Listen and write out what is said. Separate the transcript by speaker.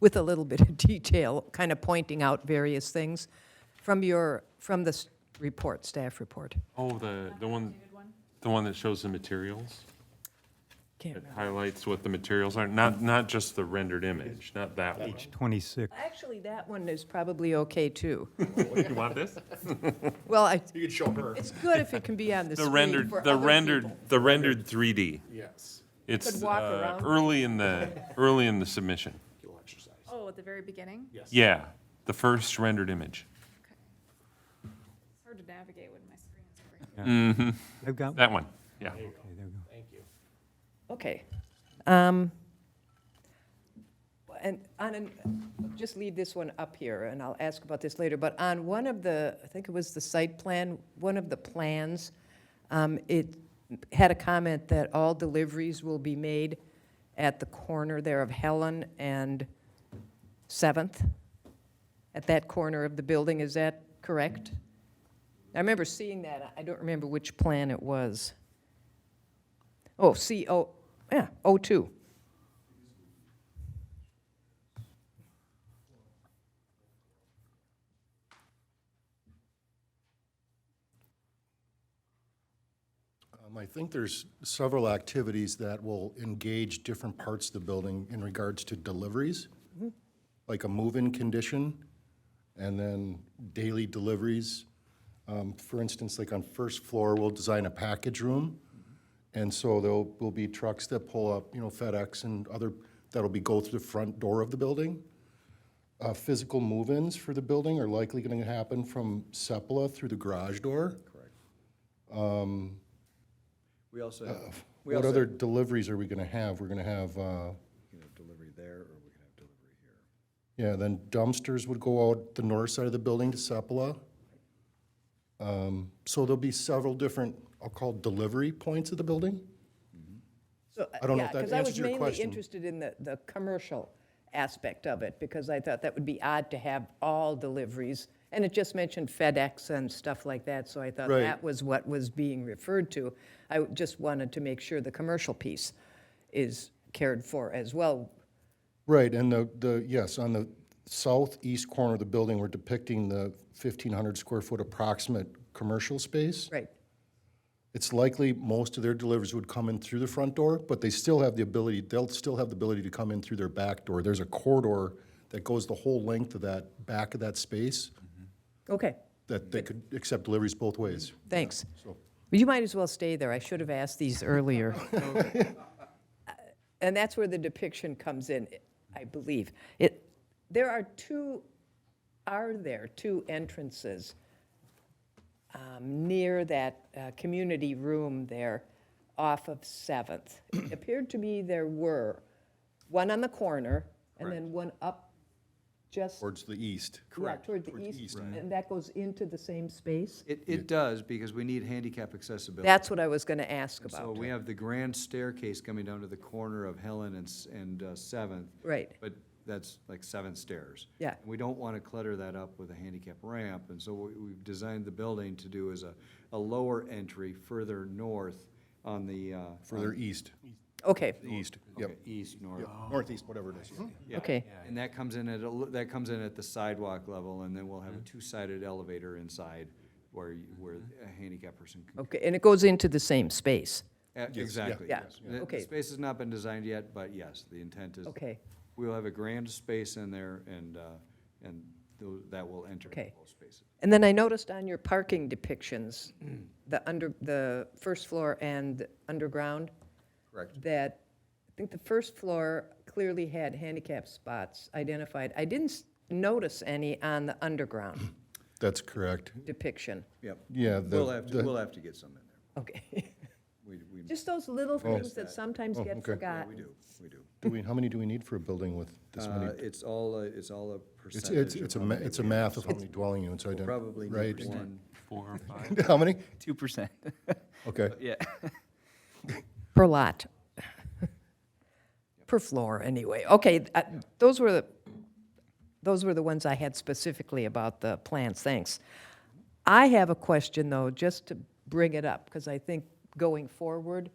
Speaker 1: with a little bit of detail, kind of pointing out various things from your, from this report, staff report.
Speaker 2: Oh, the, the one, the one that shows the materials?
Speaker 1: Can't
Speaker 2: It
Speaker 1: remember.
Speaker 2: highlights what the materials are, not, not just the rendered image, not that one.
Speaker 3: Page 26.
Speaker 1: Actually, that one is probably okay, too.
Speaker 2: You want this?
Speaker 1: Well, I,
Speaker 4: You could show her.
Speaker 1: it's good if it can be on the
Speaker 2: The
Speaker 1: screen
Speaker 2: rendered,
Speaker 1: for
Speaker 2: the
Speaker 1: other
Speaker 2: rendered,
Speaker 1: people.
Speaker 2: the rendered 3D.
Speaker 4: Yes.
Speaker 2: It's
Speaker 1: Could walk
Speaker 2: uh,
Speaker 1: around.
Speaker 2: early in the, early in the submission.
Speaker 4: You'll exercise.
Speaker 5: Oh, at the very beginning?
Speaker 4: Yes.
Speaker 2: Yeah, the first rendered image.
Speaker 5: Okay. It's hard to navigate when my screen is over here.
Speaker 3: I've got, okay,
Speaker 2: That one, yeah.
Speaker 3: there we go.
Speaker 4: Thank you.
Speaker 1: Okay. Um, And on, an- just leave this one up here, and I'll ask about this later, but on one of the, I think it was the site plan, one of the plans, um, it had a comment that all deliveries will be made at the corner there of Helen and Seventh, at that corner of the building, is that correct? I remember seeing that, I don't remember which plan it was. Oh, C, O, yeah, O two.
Speaker 6: Um, I think there's several activities that will engage different parts of the building in regards to deliveries, like a move-in condition, and then daily deliveries. Um, For instance, like on first floor, we'll design a package room, and so there will be trucks that pull up, you know, FedEx and other, that'll be go through the front door of the building. Uh, Physical move-ins for the building are likely going to happen from Sepulveda through the garage door.
Speaker 7: We also have, we
Speaker 6: What
Speaker 7: also
Speaker 6: other deliveries are we gonna have? We're gonna have, uh,
Speaker 7: can have delivery there, or we can have delivery here.
Speaker 6: yeah, then dumpsters would go out the north side of the building to Sepulveda. Um, So there'll be several different, I'll call delivery points of the building? I don't know if that answers your
Speaker 1: Because uh, I was mainly
Speaker 6: question.
Speaker 1: interested in the, the commercial aspect of it, because I thought that would be odd to have all deliveries. And it just mentioned FedEx and stuff like that, so I thought
Speaker 6: Right.
Speaker 1: that was what was being referred to. I just wanted to make sure the commercial piece is cared for as well.
Speaker 6: Right, and the, the, yes, on the southeast corner of the building, we're depicting the fifteen hundred square foot approximate commercial space.
Speaker 1: Right,
Speaker 6: It's likely most of their deliveries would come in through the front door, but they still have the ability, they'll still have the ability to come in through their back door. There's a corridor that goes the whole length of that, back of that space,
Speaker 1: okay,
Speaker 6: that they could accept deliveries both ways.
Speaker 1: thanks. You might as well stay there, I should have asked these earlier. And that's where the depiction comes in, I believe. It, there are two, are there two entrances um, near that uh, community room there off of Seventh? It appeared to me there were, one on the corner and then one up just.
Speaker 6: Towards the east.
Speaker 1: yeah, Toward the east, and that goes into the same space?
Speaker 7: It, it does, because we need handicap accessibility.
Speaker 1: That's what I was going to ask
Speaker 7: So
Speaker 1: about.
Speaker 7: we have the grand staircase coming down to the corner of Helen and, S- and uh, Seventh.
Speaker 1: Right.
Speaker 7: But that's like seven stairs.
Speaker 1: Yeah.
Speaker 7: And We don't want to clutter that up with a handicap ramp, and so what we've designed the building to do is a, a lower entry further north on the, uh.
Speaker 6: Further east.
Speaker 1: Okay,
Speaker 6: East,
Speaker 7: okay, Oh. Hmm.
Speaker 6: yep.
Speaker 7: East, north.
Speaker 6: Northeast, whatever it is.
Speaker 7: Yeah.
Speaker 1: Okay.
Speaker 7: And that comes in at, a l- that comes in at the sidewalk level, and then we'll
Speaker 6: Mm-hmm.
Speaker 7: have a two-sided elevator inside where, you- where a handicap person can.
Speaker 1: okay, and it goes into the same space?
Speaker 7: Uh, Exactly.
Speaker 1: Yeah,
Speaker 7: yes.
Speaker 1: yeah.
Speaker 7: The-
Speaker 1: Okay.
Speaker 7: The space has not been designed yet, but yes, the intent is.
Speaker 1: Okay.
Speaker 7: We'll have a grand space in there, and, uh, and tho- that will enter
Speaker 1: Okay.
Speaker 7: both spaces.
Speaker 1: And then I noticed on your parking depictions, the under, the first floor and underground,
Speaker 7: Correct.
Speaker 1: that, I think the first floor clearly had handicap spots identified. I didn't s- notice any on the underground
Speaker 6: That's correct.
Speaker 1: depiction.
Speaker 7: Yep.
Speaker 6: Yeah, the-
Speaker 7: We'll have, to
Speaker 6: the-
Speaker 7: we'll have to get some in there.
Speaker 1: Okay,
Speaker 7: We, we, yeah,
Speaker 1: just those little things that sometimes get
Speaker 6: okay.
Speaker 1: forgotten.
Speaker 7: we do, we do.
Speaker 6: Do we, how many do we need for a building with this
Speaker 7: Uh,
Speaker 6: many?
Speaker 7: It's all, a- it's all a
Speaker 6: It's,
Speaker 7: percentage.
Speaker 6: it's,
Speaker 7: of
Speaker 6: it's a,
Speaker 7: how
Speaker 6: ma-
Speaker 7: many
Speaker 6: it's a
Speaker 7: we-
Speaker 6: math of how many dwelling units I don't.
Speaker 7: Probably
Speaker 6: Right.
Speaker 7: need one.
Speaker 2: Four or five.
Speaker 6: How many?
Speaker 8: two percent.
Speaker 6: Okay.
Speaker 8: yeah.
Speaker 1: Per lot. Per floor, anyway. Okay, th- uh, those were the, those were the ones I had specifically about the plans, thanks. I have a question, though, just to bring it up, because I think going forward,